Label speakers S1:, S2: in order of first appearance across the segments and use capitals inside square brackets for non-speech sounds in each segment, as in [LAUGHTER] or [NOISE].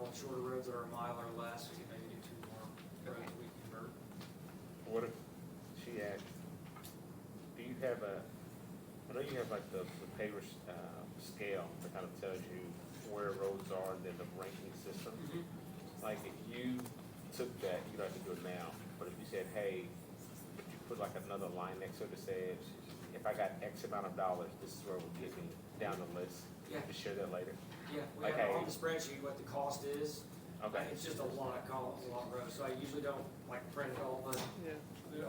S1: roads that are a mile or less, you know, you do two more roads we convert.
S2: What if she asked, do you have a, I know you have like the, the paper, uh, scale that kind of tells you where roads are and then the ranking system? Like if you took that, you don't have to do it now, but if you said, hey, would you put like another line next to it that says, if I got X amount of dollars, this is where it would get me down the list,
S1: Yeah,
S2: to share that later?
S1: yeah, we have it on
S2: Okay.
S1: the spreadsheet what the cost is,
S2: Okay,
S1: It's just a lot of columns, a lot of rows, so I usually don't like print it all, but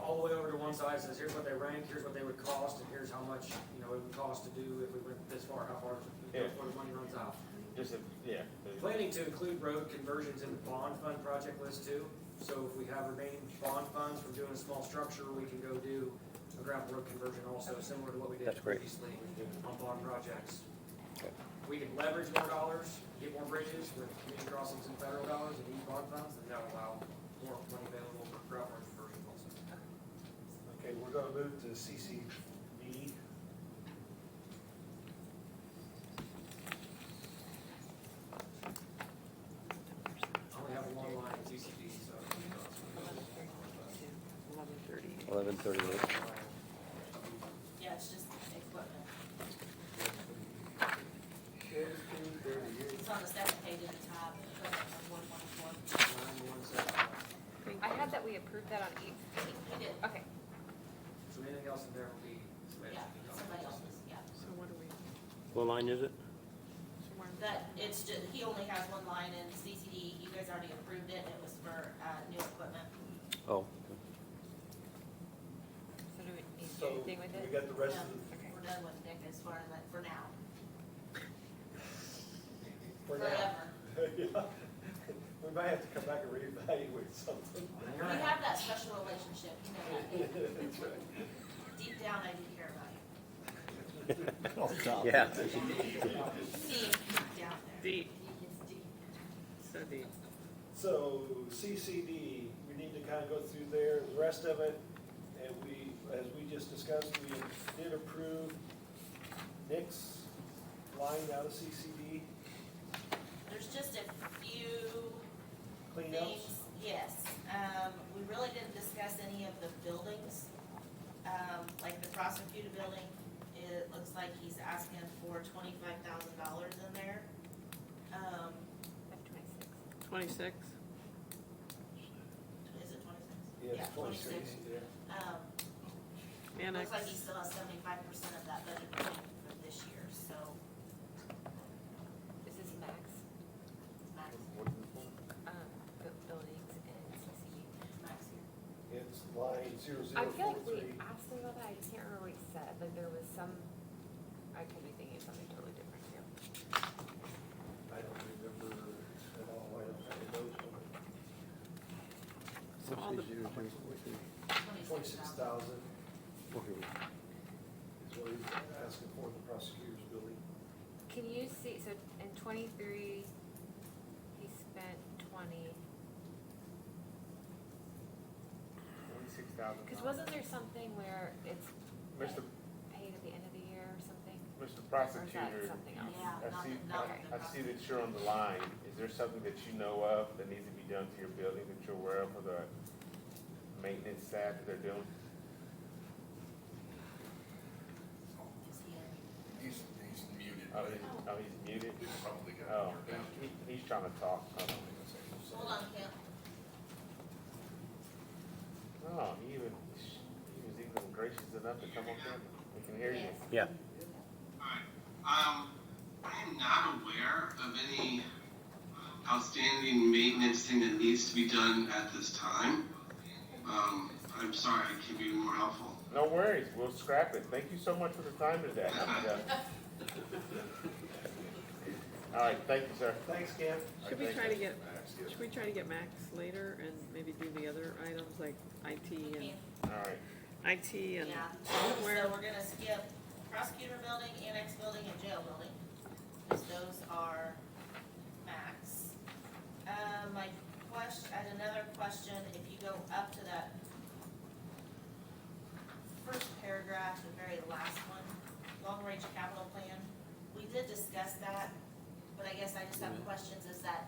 S1: all the way over to one side says, here's what they rank, here's what they would cost, and here's how much, you know, it would cost to do if we went this far, how far,
S2: Yeah.
S1: before the money runs out.
S2: just, if- yeah.
S1: Planning to include road conversions in the bond fund project list too, so if we have remaining bond funds from doing a small structure, we can go do a gravel road conversion also, similar to what we did
S3: That's great.
S1: previously on bond projects.
S3: Okay.
S1: We can leverage more dollars, get more bridges with community crossings and federal dollars and these bond funds, and that'll allow more money available for gravel road conversions also.
S4: Okay, we're gonna move to CCD.
S1: I only have one line in TCD, so.
S5: Eleven thirty.
S3: Eleven thirty-eight.
S6: Yeah, it's just equipment. It's on the second page at the top, equipment of one one four.
S1: Line one seven.
S7: I had that we approved that on eight fifteen.
S6: We did,
S7: Okay,
S1: So anything else in there will be. somebody
S6: yeah,
S1: else's dollars.
S6: somebody else's, yeah.
S5: So what do we,
S3: What line is it?
S5: so where,
S6: That, it's just, he only has one line in CCD, you guys already approved it, and it was for, uh, new equipment.
S3: Oh,
S7: so do we need to do
S4: So,
S7: anything with
S4: we
S7: it?
S4: got the rest of,
S6: Yeah,
S7: Okay.
S6: Um, We're done with Nick as far as, like, for now,
S4: the- for now.
S6: forever.
S4: Yeah. [LAUGHS] We might have to come back and reevaluate something. [LAUGHS]
S1: Hang
S6: We
S1: on.
S6: have that special relationship, you know that, Nick.
S4: That's right.
S6: deep down, I do care about you.
S3: yeah.
S6: Deep, deep down there.
S5: Deep.
S6: It's deep.
S5: so the,
S4: So CCD, we need to kind of go through there, the rest of it, and we, as we just discussed, we did approve Nick's line out of CCD
S6: There's just a few
S4: cleanups.
S6: things, yes. Um, we really didn't discuss any of the buildings. Um, like the prosecutor building, it looks like he's asking for twenty-five thousand dollars in there. Um,
S7: That's 26.
S5: twenty-six?
S6: is it twenty-six?
S4: Yes, twenty-six, yeah.
S6: Um,
S5: Annex,
S6: looks like he still has seventy-five percent of that budget remaining for this year, so
S7: This is max,
S6: max,
S7: um, bu- buildings and E. CCD.
S6: max here.
S4: It's line zero
S7: I
S4: zero four
S7: feel like
S4: three.
S7: we asked him about that, I just can't remember what he said, like there was some, I could be thinking of something totally different here.
S4: I don't remember at all, I don't have those.
S5: so all the,
S4: Twenty-six
S6: Twenty-six thousand.
S4: thousand is what he's asking for in the prosecutor's building.
S7: Can you see, so in twenty-three, he spent twenty,
S2: Twenty-six thousand.
S7: cause wasn't there something where it's
S2: Mr.
S7: paid at the end of the year or something?
S2: Mr.
S7: Or is that
S2: Prosecutor,
S7: something else?
S6: Yeah,
S2: I
S6: not,
S2: see-
S6: the- not the
S2: I see that you're on the line. Is there something that you know of that needs to be done to your building that you're aware of for the maintenance staff that they're doing?
S6: Is he in?
S8: He's, he's muted,
S2: Oh,
S8: but
S2: he- oh, he's muted?
S8: he's probably
S2: Oh,
S8: got it down.
S2: he- he- he's trying to talk. Oh,
S6: Hold on, Kim.
S2: Oh, he even, he was even gracious enough to come up here. We can hear you.
S3: Yeah.
S6: Yes.
S9: Alright, um, I am not aware of any outstanding maintenance thing that needs to be done at this time. Um, I'm sorry, I can be more helpful.
S2: No worries, we'll scrap it. Thank you so much for the time today. All right, thank you, sir.
S4: Thanks, Cam.
S5: should we
S2: Thank
S5: try to
S2: you.
S5: get,
S8: Max, yes.
S5: should we try to get Max later and maybe do the other items like IT
S6: Kim.
S2: All right.
S5: and, IT and
S6: Yeah, so
S5: software?
S6: we're gonna skip prosecutor building, annex building, and jail building, because those are max. Uh, my question, I had another question, if you go up to that first paragraph, the very last one, long-range capital plan, we did discuss that, but I guess I just have questions, is that